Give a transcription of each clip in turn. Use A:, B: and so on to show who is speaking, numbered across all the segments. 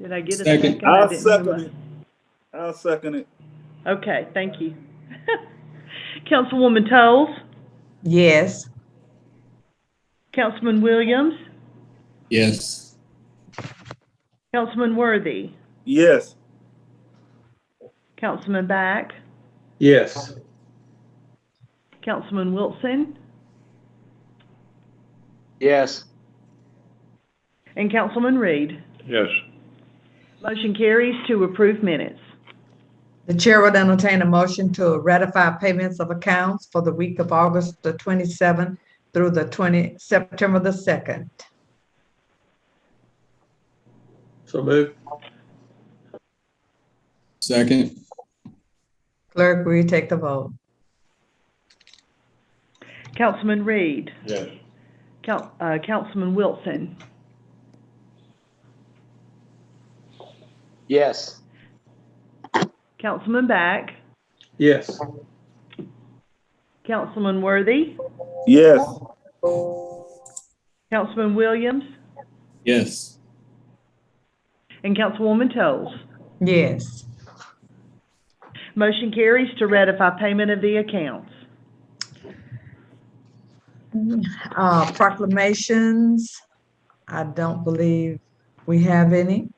A: Did I get a
B: Second.
A: second? I
C: I'll
A: didn't
C: second
A: realize.
C: it. I'll second it.
A: Okay, thank you. Councilwoman Toles,
D: Yes.
A: Councilman Williams,
B: Yes.
A: Councilman Worthy,
C: Yes,
A: Councilman Back,
E: Yes.
A: Councilman Wilson,
E: Yes.
A: and Councilman Reed.
E: Yes.
A: Motion carries to approve minutes.
D: The chair would entertain a motion to ratify payments of accounts for the week of August the 27th through the 20, September the 2nd.
E: So move.
B: Second.
D: Clerk, will you take the vote?
A: Councilman Reed,
E: Yes.
A: Coun- uh, Councilman Wilson,
E: Yes.
A: Councilman Back,
E: Yes.
A: Councilman Worthy,
C: yes,
A: Councilman Williams,
B: Yes.
A: and Councilwoman Toles.
D: Yes.
A: Motion carries to ratify payment of the accounts.
D: Uh, proclamations, I don't believe we have any.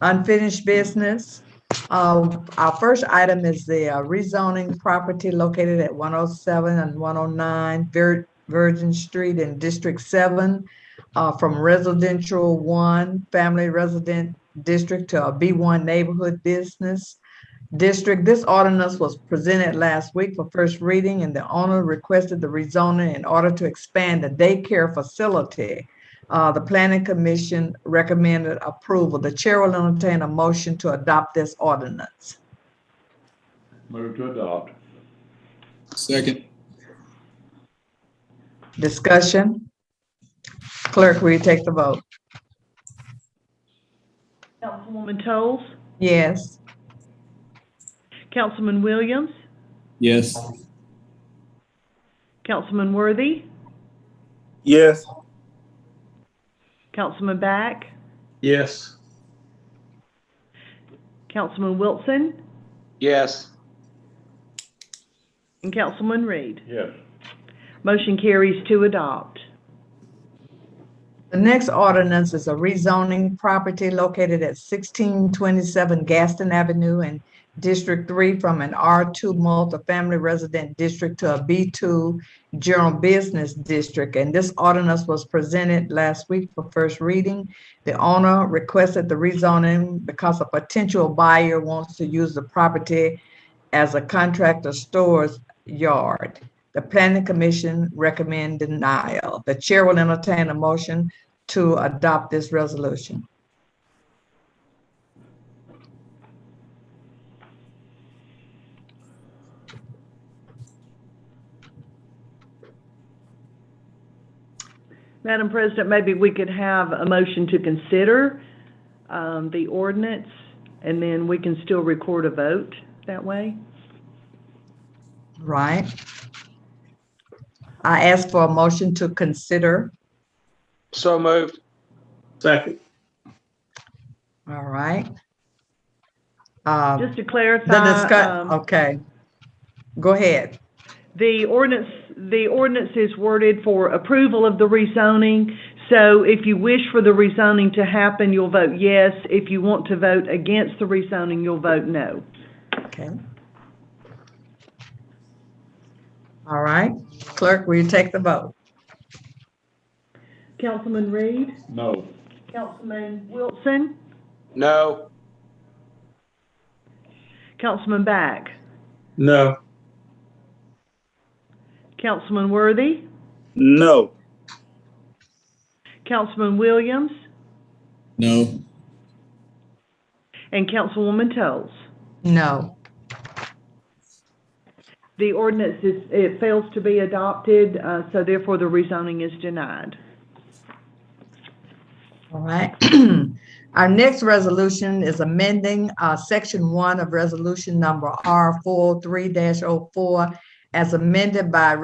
D: Unfinished business. Uh, our first item is the uh, rezoning property located at one oh seven and one oh nine Virgin Street in District Seven uh, from residential one, family resident district to a B one neighborhood business district. This ordinance was presented last week for first reading and the owner requested the rezoning in order to expand the daycare facility. Uh, the planning commission recommended approval. The chair will entertain a motion to adopt this ordinance.
E: Move to adopt.
B: Second.
D: Discussion? Clerk, will you take the vote?
A: Councilwoman Toles,
D: Yes.
A: Councilman Williams,
B: Yes.
A: Councilman Worthy,
C: yes,
A: Councilman Back,
E: Yes.
A: Councilman Wilson,
E: Yes.
A: and Councilman Reed.
E: Yes.
A: Motion carries to adopt.
D: The next ordinance is a rezoning property located at sixteen twenty-seven Gaston Avenue in District Three from an R two multifamily resident district to a B two general business district. And this ordinance was presented last week for first reading. The owner requested the rezoning because a potential buyer wants to use the property as a contractor storage yard. The planning commission recommend denial. The chair will entertain a motion to adopt this resolution.
A: Madam President, maybe we could have a motion to consider um, the ordinance, and then we can still record a vote that way.
D: Right? I ask for a motion to consider.
E: So moved. Second.
D: All right. Uh, Um,
A: Just to
D: the
A: clarify,
D: discuss,
A: um,
D: okay. Go ahead.
A: the ordinance, the ordinance is worded for approval of the rezoning. So if you wish for the rezoning to happen, you'll vote yes. If you want to vote against the rezoning, you'll vote no.
D: Okay. All right. Clerk, will you take the vote?
A: Councilman Reed?
E: No.
A: Councilman Wilson?
E: No.
A: Councilman Back?
E: No.
A: Councilman Worthy?
C: no,
A: Councilman Williams?
B: No.
A: And Councilwoman Toles?
D: No.
A: The ordinance is, it fails to be adopted, uh, so therefore the rezoning is denied.
D: All right. Our next resolution is amending uh, Section 1 of Resolution Number R43-04 as amended by